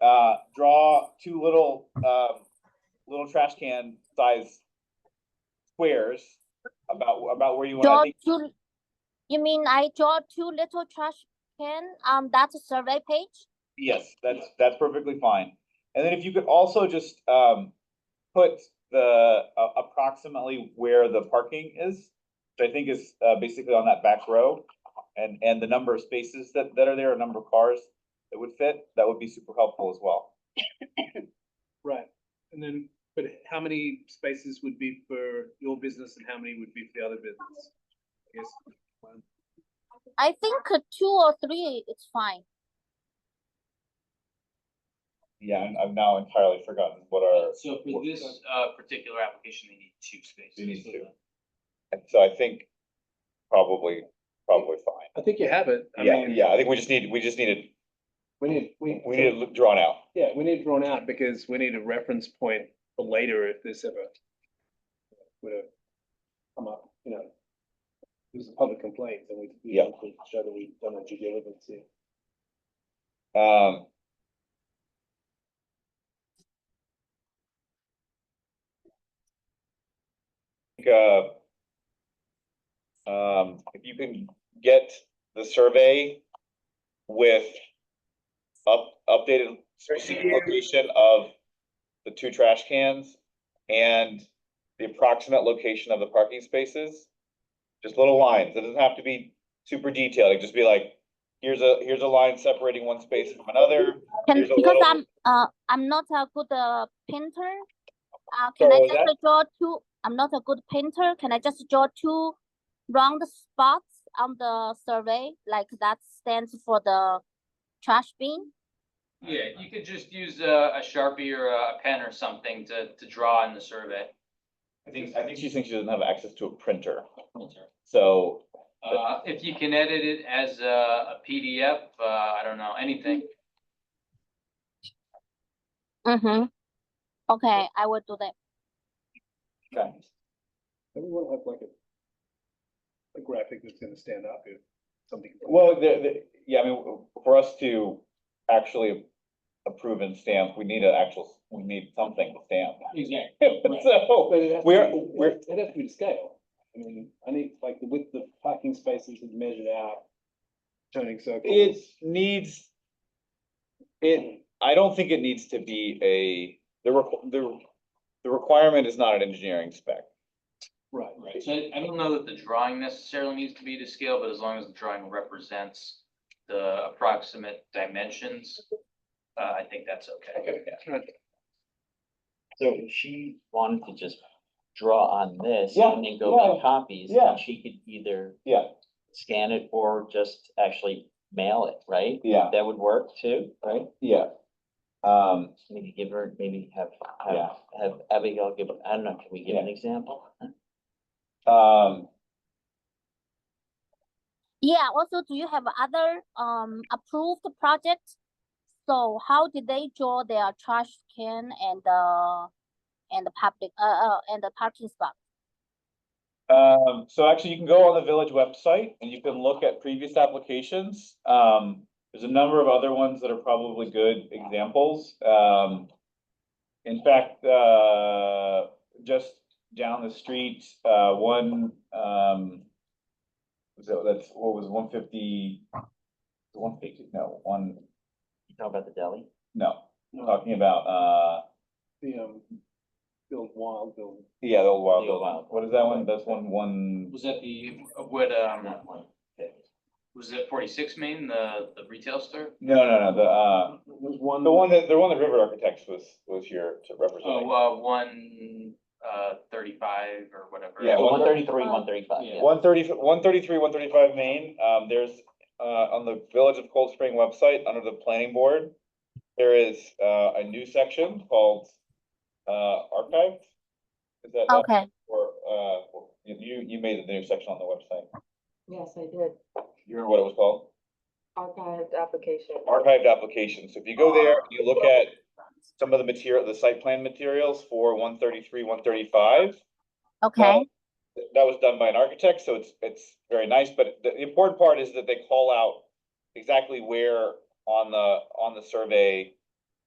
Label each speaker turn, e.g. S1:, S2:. S1: uh, draw two little, um, little trash can size squares about, about where you want, I
S2: Draw
S1: think,
S2: two, you mean I draw two little trash can on that survey page?
S1: yes, that's, that's perfectly fine. And then if you could also just, um, put the, uh, approximately where the parking is, which I think is, uh, basically on that back row, and, and the number of spaces that, that are there, a number of cars that would fit, that would be super helpful as well.
S3: Right, and then, but how many spaces would be for your business and how many would be for the other business? I guess, one.
S2: I think uh, two or three is fine.
S1: Yeah, I'm- I've now entirely forgotten what our,
S4: So for this uh particular application, they need two spaces.
S1: They need
S4: So
S1: two.
S4: the-
S1: and so I think probably, probably fine.
S3: I think you have it. I
S1: Yeah,
S3: mean,
S1: yeah, I think we just need, we just needed,
S3: We need, we,
S1: we need it drawn out.
S3: yeah, we need it drawn out because we need a reference point for later if this ever would have come up, you know. It was a public complaint and we, we
S1: Yeah.
S3: have to show that we've done our due diligence here.
S1: Um. think, Uh. Um, if you can get the survey with up, updated specific location of the two trash cans and the approximate location of the parking spaces. Just little lines. It doesn't have to be super detailed. It can just be like, here's a, here's a line separating one space from another.
S2: Can,
S1: There's a
S2: because
S1: little-
S2: I'm, uh, I'm not a good, uh, painter. Uh, can I
S1: So
S2: just draw two, I'm not a good painter, can I just draw two round spots on the survey, like that stands for the trash bin?
S4: Yeah, you could just use uh, a a Sharpie or a pen or something to to draw in the survey.
S1: I think, I think she thinks she doesn't have access to a printer,
S4: Uh,
S1: so,
S4: if you can edit it as a a PDF, uh, I don't know, anything.
S2: Mm-hmm. Okay, I will do that.
S1: okay.
S3: And we want to have like a, a graphic that's gonna stand up if something.
S1: Well, the, the, yeah, I mean, for us to actually approve and stamp, we need an actual, we need something to stamp.
S4: Exactly.
S1: So,
S3: But it has to
S1: We're-
S3: be-
S1: we're-
S3: It has to be to scale. I mean, I need like the width of parking spaces is measured out. Turning circle.
S1: it needs, it, I don't think it needs to be a, the, requ- the, the requirement is not an engineering spec.
S3: Right,
S4: Right, so I I don't know that the drawing necessarily needs to be to scale, but as long as the drawing represents the approximate dimensions, uh, I think that's okay.
S3: right.
S5: So if she wanted to just draw on this
S1: Yeah,
S5: and then go
S1: yeah,
S5: make copies,
S1: yeah.
S5: then she could either
S1: Yeah,
S5: scan it or just actually mail it, right?
S1: yeah,
S5: That would work too, right?
S1: yeah. Um,
S5: Maybe give her, maybe have,
S1: Yeah.
S5: have, have Abigail give, I don't know, can we give an
S1: Yeah.
S5: example?
S1: um,
S2: Yeah, also, do you have other, um, approved projects? So how did they draw their trash can and, uh, and the public, uh, uh, and the parking spot?
S1: Um, so actually, you can go on the village website and you can look at previous applications. Um, there's a number of other ones that are probably good examples. Um, in fact, uh, just down the street, uh, one, um, so that's, what was one fifty? One fifty, no, one,
S5: You talk about the deli?
S1: no, I'm talking about, uh,
S3: The, um, build wild, build.
S1: yeah, the old wild
S5: The old
S1: building.
S5: Wild.
S1: What is that one? That's one, one,
S4: Was that the, what, um,
S5: Not one.
S4: was it forty-six Main, the, the retail store?
S1: no, no, no, the, uh,
S3: There's one.
S1: The one that, the one that River Architects was, was here to represent.
S4: Oh, uh, one, uh, thirty-five or whatever.
S1: Yeah,
S5: One thirty-three, one thirty-five,
S4: Yeah.
S5: yeah.
S1: One thirty, one thirty-three, one thirty-five Main, um, there's, uh, on the Village of Cold Spring website, under the planning board, there is, uh, a new section called, uh, archived. Is that, not-
S2: Okay,
S1: or, uh, you, you made the new section on the website.
S6: Yes, I did.
S1: You remember what it was called?
S6: Archived application.
S1: Archived applications. So if you go there, and you look at some of the material, the site plan materials for one thirty-three, one thirty-five.
S2: okay,
S1: th- that was done by an architect, so it's, it's very nice, but the the important part is that they call out exactly where on the, on the survey